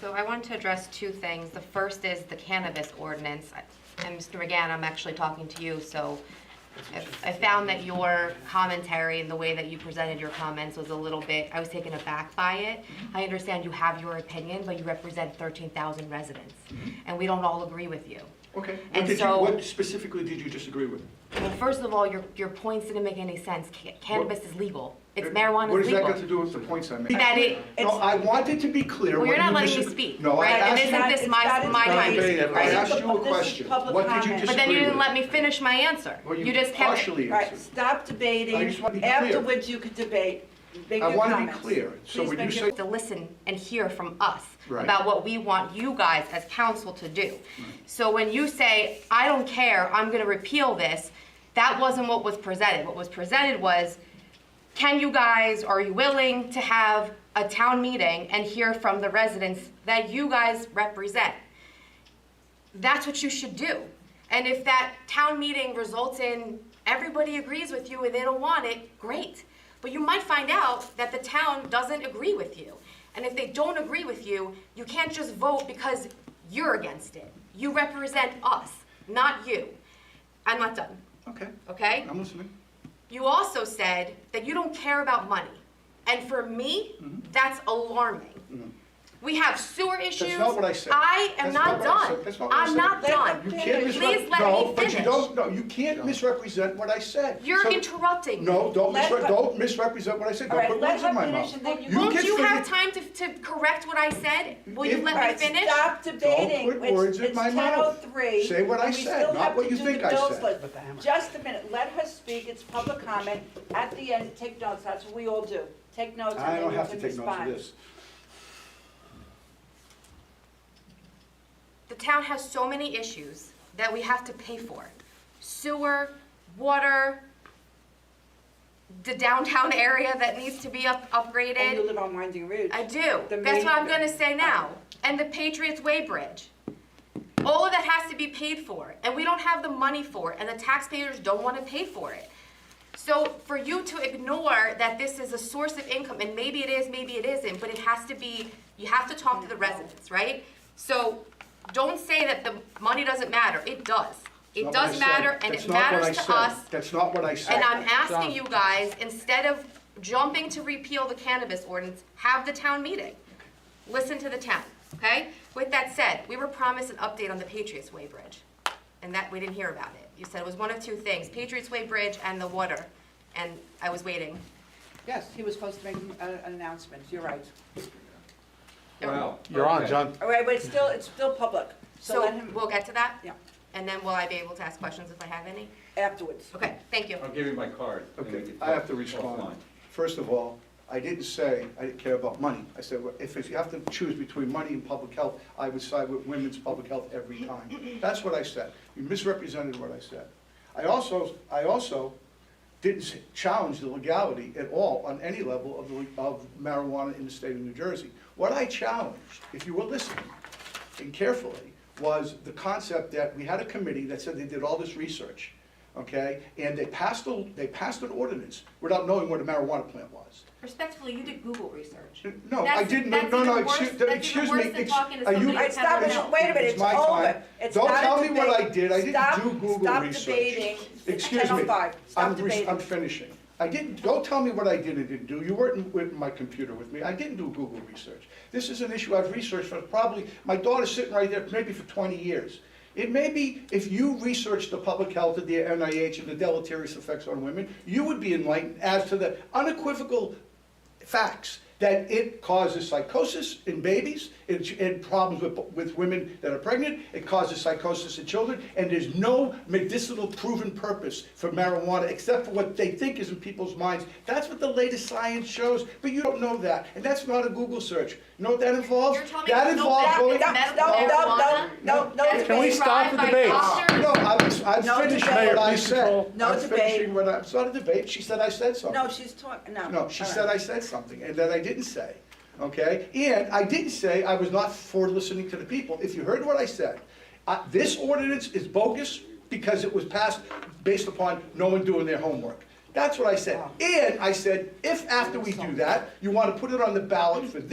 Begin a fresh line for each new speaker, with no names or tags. So I wanted to address two things. The first is the cannabis ordinance. And Mr. McGann, I'm actually talking to you, so I- I found that your commentary and the way that you presented your comments was a little bit, I was taken aback by it. I understand you have your opinion, but you represent 13,000 residents, and we don't all agree with you.
Okay. What
And
did you,
so-
what specifically did you disagree with?
Well, first of all, your, your points didn't make any sense. Ca- Cannabis is legal. It's marijuana
What
is
does that
legal.
got to do with the points I made?
That it-
No, I wanted to be clear.
Well, you're
when
not
you
letting me
disagre-
speak,
No, I
right? And
asked
isn't
you.
this my- my
time? I asked
This
you a
is
question.
public
What did you
comment.
But then you
disagree
didn't
with.
let me finish my answer.
Well,
You just kept.
partially
Right,
answered.
stop
I just wanna
debating,
be clear.
afterwards you could debate, make
I
your
wanna be
comments.
clear. So
Please
when you
make your
say-
to listen and hear from us
Right.
about what we want you guys as council to do. So when you say, I don't care, I'm gonna repeal this, that wasn't what was presented. What was presented was, can you guys, are you willing to have a town meeting and hear from the residents that you guys represent? That's what you should do. And if that town meeting results in everybody agrees with you and they don't want it, great. But you might find out that the town doesn't agree with you. And if they don't agree with you, you can't just vote because you're against it. You represent us, not you. I'm not done,
Okay,
okay?
I'm listening.
You also said that you don't care about money. And for me,
Mm-hmm.
that's alarming. We have sewer issues.
not what I said.
I am
That's
not
not what I
done.
said. That's not what I
I'm
said.
not
Let
done.
You
them
can't
Please
misrep-
let
no,
me
but you
finish.
don't, no, you can't misrepresent what I said.
You're
So-
interrupting.
No, don't
Let
misre-
her-
don't misrepresent what I said.
All
Don't
right,
put
let
words in
her
my
finish
mouth.
and then you-
Won't
can
you have
finish-
time to, to correct what I said? Will you
If-
let
All right,
me finish?
stop debating.
Don't put
It's-
words in
it's
my mouth.
10:03,
Say what I
and we
said,
still
not
have
what
to
you
do
think
the
I
bills
said.
list. Just a minute, let her speak, it's public comment. At the end, take notes, that's what we all do. Take notes and
I
then
don't
you
have to
can
take notes of
respond.
this.
The town has so many issues that we have to pay for. Sewer, water, the downtown area that needs to be up, upgraded.
And you live on Winding Ridge.
I do.
The
That's what I'm
main-
gonna say now. And the Patriots Way Bridge. All of that has to be paid for, and we don't have the money for it, and the taxpayers don't wanna pay for it. So for you to ignore that this is a source of income, and maybe it is, maybe it isn't, but it has to be, you have to talk to the residents, right? So don't say that the money doesn't matter. It does. It
Not what I
does
said.
matter, and
That's
it
not what
matters
I
to
said.
us.
That's not what I said.
And I'm asking you guys, instead of jumping to repeal the cannabis ordinance, have the town meeting. Listen to the town, okay? With that said, we were promised an update on the Patriots Way Bridge, and that, we didn't hear about it. You said it was one of two things, Patriots Way Bridge and the water, and I was waiting.
Yes, he was supposed to make an an announcement, you're right.
Wow. You're on, John.
All right, but it's still, it's still public, so let
Um, So
him,
we'll get to that?
yeah,
And then will I be able to ask questions if I have any?
afterwards.
Okay, thank you.
I'll give you my card. and we
Okay,
can
I have to
talk
respond.
offline.
First of all, I didn't say I didn't care about money. I said, well, if you have to choose between money and public health, I would side with women's public health every time. That's what I said. You misrepresented what I said. I also, I also didn't s- challenge the legality at all on any level of the le- of marijuana in the state of New Jersey. What I challenged, if you were listening, and carefully was the concept that we had a committee that said they did all this research, okay? And they passed, a they passed an ordinance without knowing what a marijuana plant was.
Respectfully, you did Google research.
No, I
That's-
didn't, no,
that's
no, no,
even worse-
excuse,
that's even
excuse me.
worse than
ex-
talking to
are you-
somebody
All right, stop
It's-
now, wait a minute, it's
my
over.
time.
It's
Don't
not a
tell me what I
debate.
did, I
Stop-
didn't do Google
stop
research.
debating. It's
Excuse me,
10:05. Stop
I'm, res-
debating.
I'm finishing. I didn't, don't tell me what I did and didn't do, you weren't with my computer with me, I didn't do Google research. This is an issue I've researched for probably, my daughter's sitting right there, maybe for twenty years. It may be, if you researched the public health of the NIH and the deleterious effects on women, you would be enlightened as to the unequivocal facts that it causes psychosis in babies, it, it problems with, with women that are pregnant, it causes psychosis in children, and there's no medicinal proven purpose for marijuana except for what they think is in people's minds. That's what the latest science shows, but you don't know that, and that's not a Google search. You know what that involves?
You're telling me
That
there's no
involves
back-
going.
that-
No, no, no, no, no, no
That's
Can we
debate.
been
stop
tried
the
by
debate?
doctors.
No, I'm,
No
I'm finishing
debate.
what I
Please
said.
control.
No
I'm
debate.
finishing what I, it's not a debate, she said I said something.
No, she's talking, no.
No, she
all
said
right.
I said something, and that I didn't say, okay? And I didn't say I was not for listening to the people. If you heard what I said, I- this ordinance is bogus because it was passed based upon no one doing their homework. That's what I said. And I said, if after we do that, you want to put it on the ballot for